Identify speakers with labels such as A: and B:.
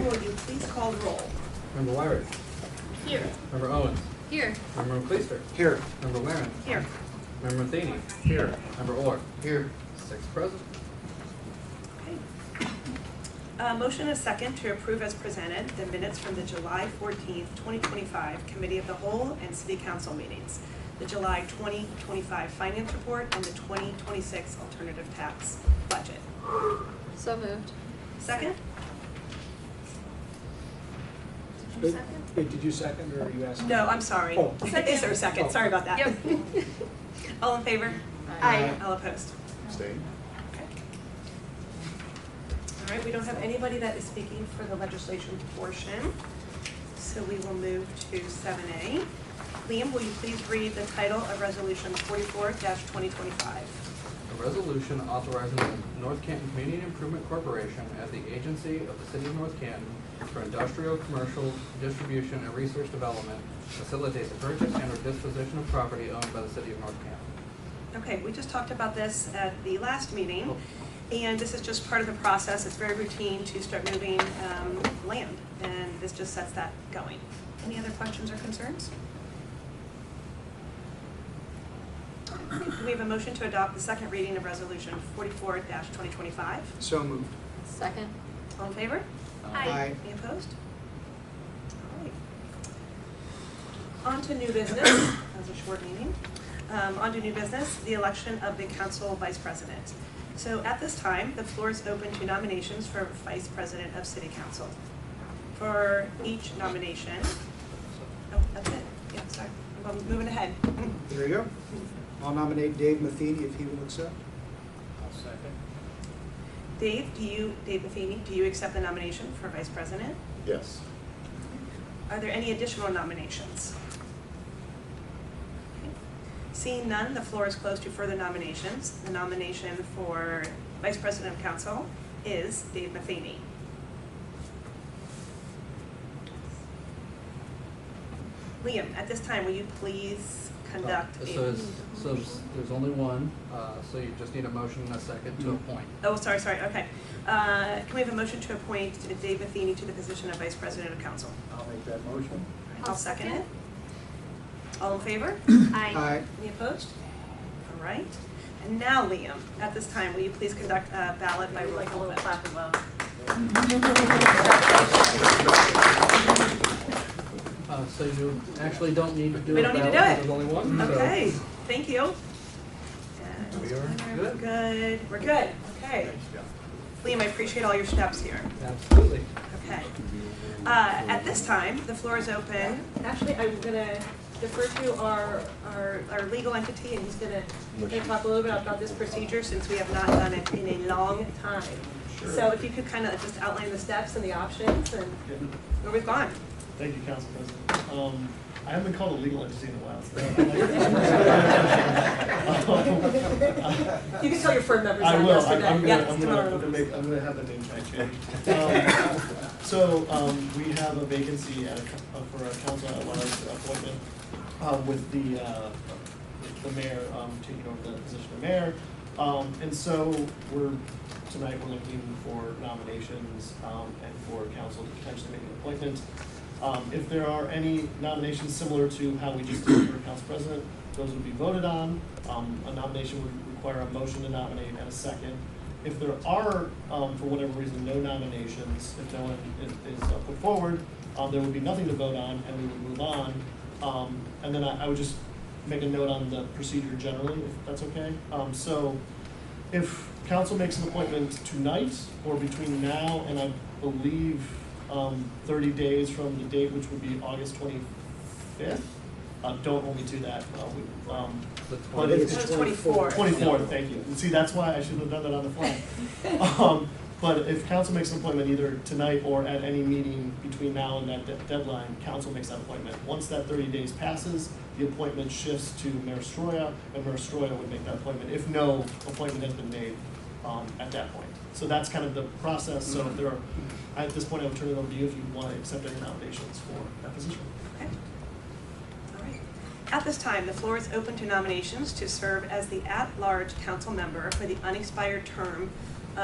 A: will you please call roll?
B: Member Wyrick.
A: Here.
B: Member Owens.
C: Here.
B: Member McLeaster.
D: Here.
B: Member Warren.
A: Here.
B: Member Matheny.
D: Here.
B: Member Orr.
D: Here.
B: Six present.
A: Okay. Uh, Motion is second to approve as presented the minutes from the July fourteenth, twenty twenty-five Committee of the Whole and City Council meetings, the July twenty twenty-five Finance Report, and the twenty twenty-six Alternative Tax Budget.
C: So moved.
A: Second?
E: Wait, wait, did you second or are you asking?
A: No, I'm sorry.
E: Oh.
A: Is there a second? Sorry about that.
C: Yep.
A: All in favor?
C: Aye.
A: All opposed?
D: Abstain.
A: Okay. All right, we don't have anybody that is speaking for the legislation portion, so we will move to seven A. Liam, will you please read the title of Resolution forty-four twenty twenty-five?
B: A resolution authorizing the North Canton Community Improvement Corporation as the agency of the city of North Canton for industrial, commercial, distribution, and research development facilitates the purchase and or disposition of property owned by the city of North Canton.
A: Okay, we just talked about this at the last meeting, and this is just part of the process. It's very routine to start moving um, land, and this just sets that going. Any other questions or concerns? Okay, Do we have a motion to adopt the second reading of Resolution forty-four twenty twenty-five?
D: So moved.
C: Second.
A: All in favor?
D: Aye.
A: Any opposed? All right. On to new business, that was a short meeting. Um, on to new business, the election of the council vice president. So at this time, the floor is open to nominations for vice president of city council. For each nomination, oh, that's it, yeah, sorry, I'm moving ahead.
E: There you go. I'll nominate Dave Matheny if he will accept.
F: I'll second.
A: Dave, do you, Dave Matheny, do you accept the nomination for vice president?
D: Yes.
A: Are there any additional nominations? Okay. Seeing none, the floor is closed to further nominations. The nomination for Vice President of Council is Dave Matheny. Liam, at this time, will you please conduct
B: Uh,
A: a...
B: So it's, so it's- there's only one, uh, so you just need a motion and a second to
D: Mm-hmm.
B: appoint.
A: Oh, sorry, sorry, okay. Uh, Can we have a motion to appoint Dave Matheny to the position of Vice President of Council?
E: I'll make that motion.
A: I'll second it. All in favor?
E: Aye.
A: Any opposed? All right. And now, Liam, at this time, will you please conduct a ballot by roll call vote?
B: Uh, So you actually don't need to do
A: We
B: a
A: don't need to
B: ballot,
A: do it.
B: there's only one, so-
A: Okay, thank you.
B: We are
A: We're
B: good.
A: Good, we're good, okay. Liam, I appreciate all your steps here,
B: Absolutely.
A: okay. Uh, At this time, the floor is open. Actually, I'm gonna defer to our, our, our legal entity, and he's gonna gonna talk a little bit about this procedure, since we have not done it in a long time. So if you could kind of just outline the steps and the options and where we've gone.
G: Thank you, Council President. Um, I haven't been called a legal entity in a while, so. I
A: You can tell your firm members
G: I
A: that
G: will,
A: first
G: I- I'm
A: event,
G: gonna,
A: yes,
G: I'm gonna, I'm
A: tomorrow.
G: gonna make, I'm gonna have the name tag changed. Um, So, um, we have a vacancy at, a co- uh, for a council at large appointment, um, with the, uh, the mayor, um, taking over the position of mayor. Um, and so we're, tonight we're looking for nominations, um, and for council to potentially make an appointment. Um, if there are any nominations similar to how we just did for council president, those would be voted on. Um, a nomination would require a motion to nominate and a second. If there are, um, for whatever reason, no nominations, if no one is, is uh, put forward, um, there would be nothing to vote on and we would move on. Um, and then I, I would just make a note on the procedure generally, if that's okay. Um, so if council makes an appointment tonight or between now and I believe um, 30 days from the date, which would be August 25th, uh, don't hold me to that. Uh, we, um,
B: The
G: But
B: twenty-
G: it's-
A: It was twenty-four.
G: 24, thank you. And see, that's why I should have done that on the fly. Um, But if council makes an appointment either tonight or at any meeting between now and that de- deadline, council makes that appointment. Once that 30 days passes, the appointment shifts to Mayor Stroya, and Mayor Stroya would make that appointment if no appointment has been made um, at that point. So that's kind of the process. So if there are, at this point, I would turn it over to you if you want to accept any nominations for that position.
A: Okay. All right. At this time, the floor is open to nominations to serve as the at-large council member for the unexpired term